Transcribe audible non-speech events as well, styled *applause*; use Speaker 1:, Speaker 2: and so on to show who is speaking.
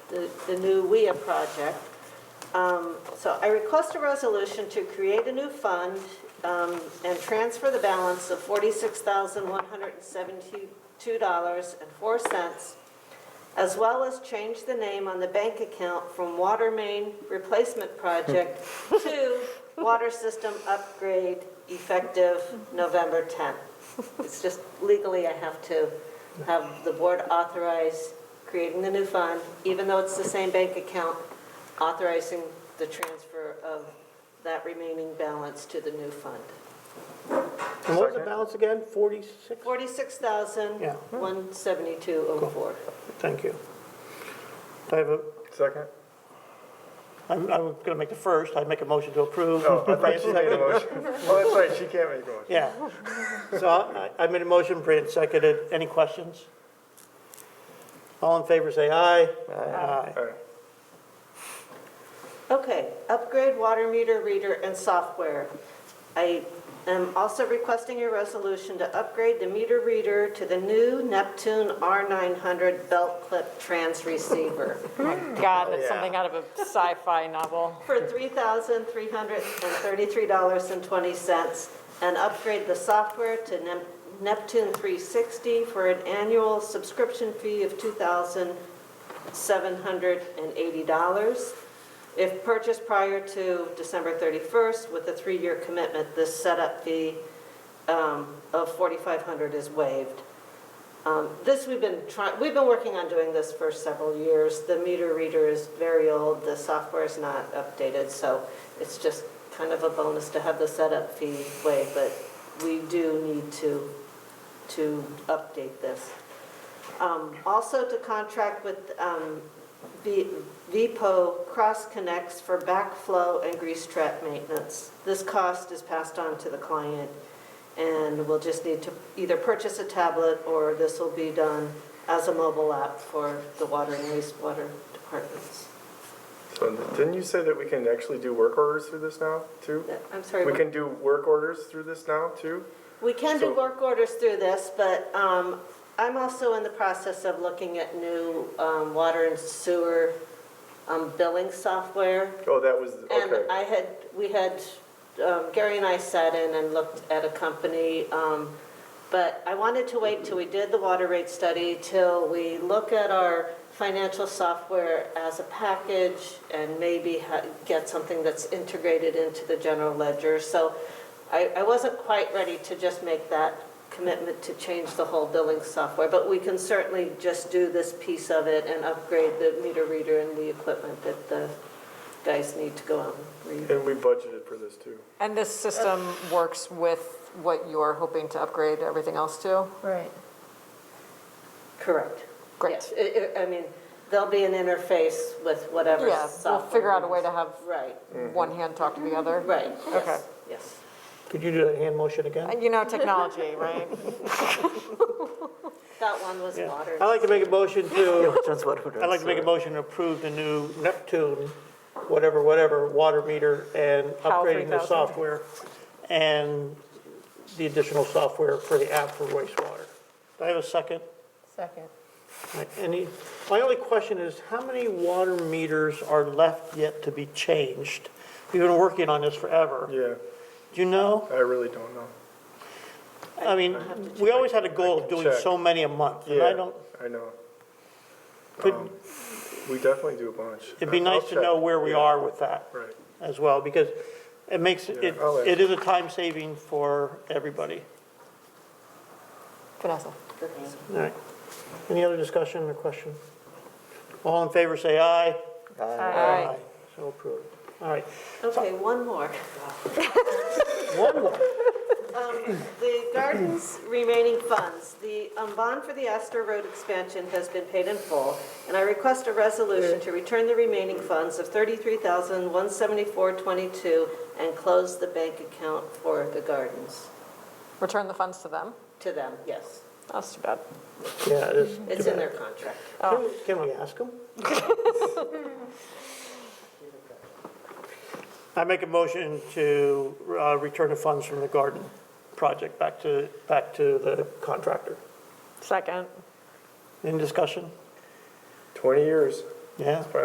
Speaker 1: the, the new WIA project. Um, So I request a resolution to create a new fund um, and transfer the balance of $46,172.04, as well as change the name on the bank account from Water Main Replacement Project to Water System Upgrade effective November 10th. It's just legally, I have to have the board authorize creating the new fund, even though it's the same bank account, authorizing the transfer of that remaining balance to the new fund.
Speaker 2: And what was the balance again? 46? Yeah.
Speaker 1: $46,172.04.
Speaker 2: Thank you. Do I have a,
Speaker 3: Second?
Speaker 2: I'm, I'm going to make the first, I'd make a motion to approve.
Speaker 3: No, Oh, I
Speaker 2: Bring a *laughs*
Speaker 3: thought she made a
Speaker 2: second.
Speaker 3: motion. Oh, that's right, she can't make a motion.
Speaker 2: Yeah. So I, I made a motion, Brandon seconded. Any questions? All in favor, say aye. Aye.
Speaker 3: All right.
Speaker 1: Okay, upgrade water meter reader and software. I am also requesting your resolution to upgrade the meter reader to the new Neptune R900 belt clip trans receiver
Speaker 4: God, that's
Speaker 3: Yeah.
Speaker 4: something out of a sci-fi novel.
Speaker 1: for $3,333.20 and upgrade the software to Nep- Neptune 360 for an annual subscription fee of $2,780. If purchased prior to December 31st with a three-year commitment, this setup fee um, of $4,500 is waived. Um, This, we've been trying, we've been working on doing this for several years. The meter reader is very old, the software is not updated, so it's just kind of a bonus to have the setup fee waived, but we do need to, to update this. Um, Also to contract with um, V- VPO Cross Connects for backflow and grease trap maintenance. This cost is passed on to the client, and we'll just need to either purchase a tablet, or this will be done as a mobile app for the water and wastewater departments.
Speaker 3: So didn't you say that we can actually do work orders through this now, too?
Speaker 1: I'm sorry.
Speaker 3: We can do work orders through this now, too?
Speaker 1: We can do
Speaker 3: So-
Speaker 1: work orders through this, but um, I'm also in the process of looking at new um, water and sewer um, billing software.
Speaker 3: Oh, that was,
Speaker 1: And
Speaker 3: okay.
Speaker 1: I had, we had, um, Gary and I sat in and looked at a company, um, but I wanted to wait till we did the water rate study, till we look at our financial software as a package and maybe ha- get something that's integrated into the general ledger. So I, I wasn't quite ready to just make that commitment to change the whole billing software, but we can certainly just do this piece of it and upgrade the meter reader and the equipment that the guys need to go out and read.
Speaker 3: And we budgeted for this, too.
Speaker 4: And this system works with what you're hoping to upgrade everything else to?
Speaker 5: Right.
Speaker 1: Correct.
Speaker 4: Great.
Speaker 1: Yes, i- i- I mean, there'll be an interface with whatever
Speaker 4: Yeah,
Speaker 1: software.
Speaker 4: we'll figure out a way to have
Speaker 1: Right,
Speaker 4: one hand talk to the other.
Speaker 1: right,
Speaker 4: Okay.
Speaker 1: yes, yes.
Speaker 2: Could you do that hand motion again?
Speaker 4: And You know, technology, right?
Speaker 1: That one was
Speaker 2: Yeah.
Speaker 1: water.
Speaker 2: I'd like to make a motion to, I'd like to make a
Speaker 3: it.
Speaker 2: motion to approve the new Neptune, whatever, whatever, water meter and
Speaker 4: Power
Speaker 2: upgrading the
Speaker 4: 3000.
Speaker 2: software and the additional software for the app for wastewater. Do I have a second?
Speaker 5: Second.
Speaker 2: Any, my only question is, how many water meters are left yet to be changed? We've been working on this forever.
Speaker 3: Yeah,
Speaker 2: Do you know?
Speaker 3: I really don't know.
Speaker 2: I mean, we always had a goal of doing
Speaker 3: check.
Speaker 2: so many a month, and
Speaker 3: Yeah,
Speaker 2: I don't,
Speaker 3: I know.
Speaker 2: could-
Speaker 3: Um, We definitely do a bunch.
Speaker 2: it'd be nice
Speaker 3: Um, I'll
Speaker 2: to
Speaker 3: check.
Speaker 2: know where we
Speaker 3: Yeah,
Speaker 2: are with that
Speaker 3: Right.
Speaker 2: as well, because it makes, it,
Speaker 3: Yeah, I'll ask.
Speaker 2: it is a time saving for everybody.
Speaker 4: Vanessa?
Speaker 2: All right. Any other discussion or question? All in favor, say aye.
Speaker 4: Aye.
Speaker 2: So approved. All right.
Speaker 1: Okay, one more.
Speaker 2: One more.
Speaker 1: The
Speaker 2: *clears throat*
Speaker 1: garden's remaining funds, the um, bond for the Astor Road expansion has been paid in full, and I request a resolution to return the remaining funds of $33,174.22 and close the bank account for the gardens,
Speaker 4: Return the funds to them?
Speaker 1: to them, yes.
Speaker 4: That's too bad.
Speaker 2: Yeah, it is.
Speaker 1: It's in oh. their contract.
Speaker 2: Can we- Can we ask them?
Speaker 1: *laughs*
Speaker 2: I make a motion to uh, return the funds from the garden project back to, back to the contractor.
Speaker 4: Second.
Speaker 2: Any discussion?
Speaker 3: 20 years.
Speaker 2: yeah.